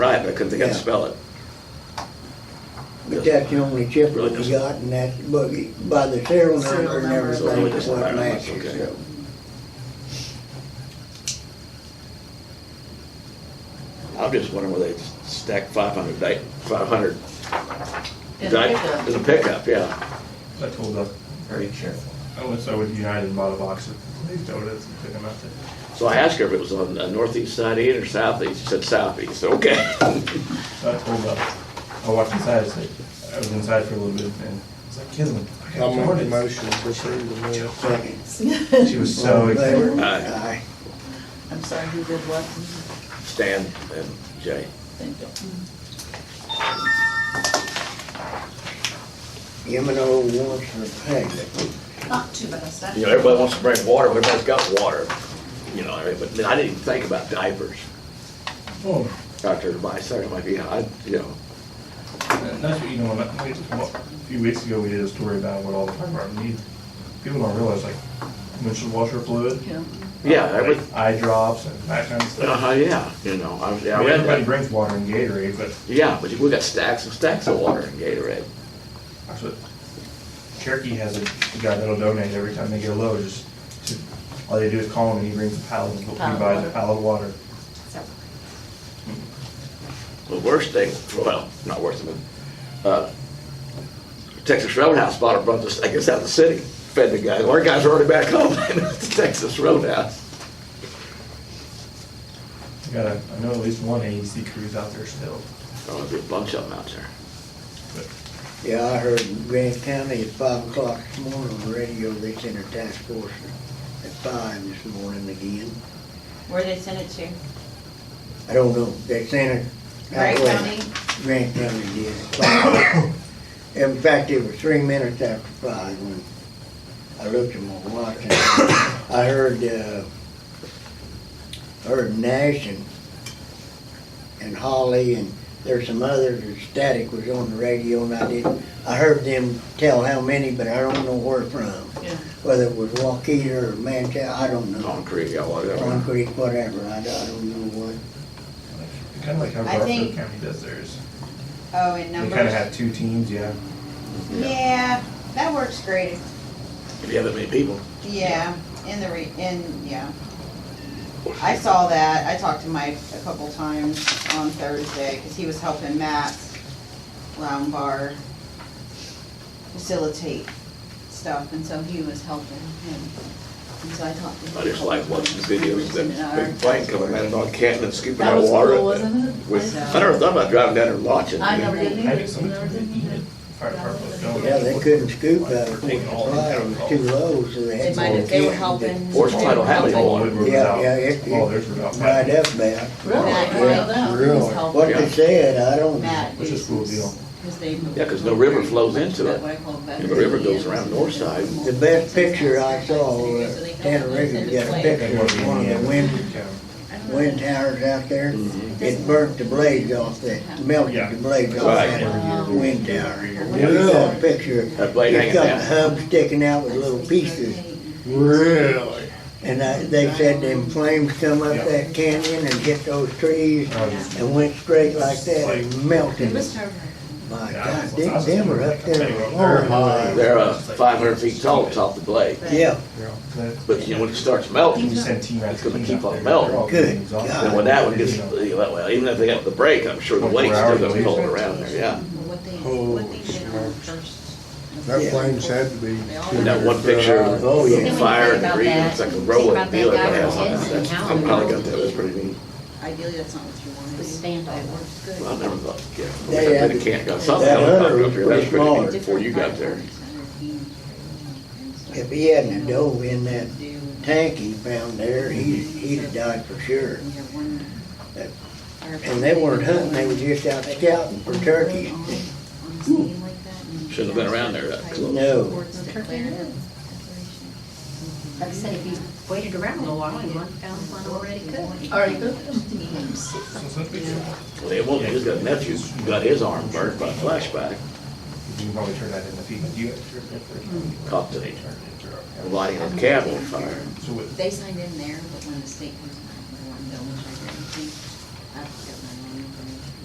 back because they can't Yeah. spell it. But that's the only chip Really that we just- got, and that's buggy, by the serial Serial number and number. So everything, it it's doesn't what matter much, matches, okay. so. I'm just wondering where they stack five hundred, five hundred. In the pickup. In a pickup, yeah. I told them, very careful. I went so with United and bought a box of glazed donuts and took them out to So I asked her if it was on the northeast side eight or southeast, she said southeast, okay. So I told them, I walked inside, I said, I was inside for a little bit and I was like, Kinlan, I Um, I'll got make a donuts. motion to approve the minutes. Second. She was so All in excited. favor? Aye. I'm sorry, who did what? Stan and Jay. Thank you. M and O wants for payment. Not too bad, that's You know, everybody wants to bring water, everybody's got water, you know, I mean, but I didn't even think about diapers. Oh, Doctor, my son, might be, I, you know, And That's what, you know, about- we- a few weeks ago, we did a story about what all the fire department needs. People don't realize, like, windshield washer fluid, Yeah. yeah, every, like eye drops and that kind of stuff. uh, yeah, you know, I, I I mean, read everybody that. brings water and Gatorade, but Yeah, but we got stacks and stacks of water in Gatorade. that's what Cherokee has a a guy that'll donate every time they get a load, just, to- all they do is call him and he brings a pallet, of- he Pallet of buys water. a pallet of water. The worst thing, well, not worst of it, uh, Texas Roadhouse bought a bunch of, I guess out of the city, fed the guys. Our guys are already back home, it's Texas Roadhouse. I got, a- I know at least one AEC crew's out there still. There'll be Oh, a bunch of them out there. Yeah, I heard in Grant County at five o'clock this morning on the radio, they sent a task force at five this morning again. Where they sent it to? I don't know, they sent it. out Wright west. County? Grant County did. at five. In fact, it was three minutes after five when I looked at my watch and I heard, uh, heard Nash and, and Holly and there's some others, and Static was on the radio and I didn't, I heard them tell how many, but I don't know where from. Yeah. Whether it was Waukeeta or Manchester, I don't know. Concrete, yeah, whatever. Concrete, whatever, I don't I don't know what. Kind of like how I Garfield think- County does theirs. Oh, in They numbers? kind of have two teams, yeah. Yeah, that works great, If you have that many people. yeah, in the re, in, yeah. I saw that, I talked to Mike a couple times on Thursday, because he was helping Matt Lombard facilitate stuff, and so he was helping him. And so I talked to him. I just like watching the videos of that big plane coming out of North Canton and scooping That out was water. cool, wasn't it? With, I never thought about driving down there and watching. I never did I think some either. of Never them did either. needed fire department. don't. Yeah, they couldn't scoop out of Taking all the supply, it was too low, so they They had. might to have, they were get- helping. Forest Title Alley All Water. Woodward was Yeah, out. yeah, it- All theirs were out. Right up there. Really? Matt, Well, yeah, no, he was Really, helping. what they said, I don't, Matt. Which is a cool deal. Because they moved Yeah, 'cause no river flows much into that it. way, well, back And the river to goes end. around north side. the best picture I saw, uh, Tanner Riggs got a They picture wanted to be of one of the wind, Yeah. wind towers out there. Mm-hmm. It burnt the blades off the, melted the blades off Right. that Oh. wind tower. Really? You saw a picture, That blade it's hanging got the down. hub sticking out with little pieces. Really? And I- they said them flames come up that canyon and hit those trees Oh, I was just- and went straight like that and melted. It was her. My Yeah, I God, was- I them, was them just are gonna up make a there. video. long high. ways. They're uh, 500 feet tall top of the blade. Yeah, But you know, when it starts melting, You send team It's gonna after team keep out on there, melting. they're all Good getting exhausted. God. and when that one gets, You know, you know, well, even if they got the brake, I'm sure the Twenty-four weight's still hours gonna at be least. rolling around there, yeah. What they, Oh, what they did on the first. That flame's had to be. And that one picture of Oh, yeah. the fire and the reed, it's like a rolling Think deal about that that has guy on it. with the That's- I kids and how probably they got that, that's pretty neat. Ideally, that's not what you want to do. The standoff. That works good. Well, I never thought, yeah, They I had- really can't, got something that else other up was there, that's pretty neat smaller. before you got there. if he hadn't dove in that tank he found there, he, he'd have died for sure. And they weren't hunting, they were just out scouting for turkeys. Shouldn't have been around there that close. No, Like I said, if you waited around a little while, you might have found one already cooked. All right, good. so it's not a big deal. Well, it won't, he's got a nephew, who got his arm burnt by a flashback, You can probably turn that in the feed. You have to turn that for- Caught today. Turn it into our- lighting a cabin on fire. So what- They signed in there, but when the state.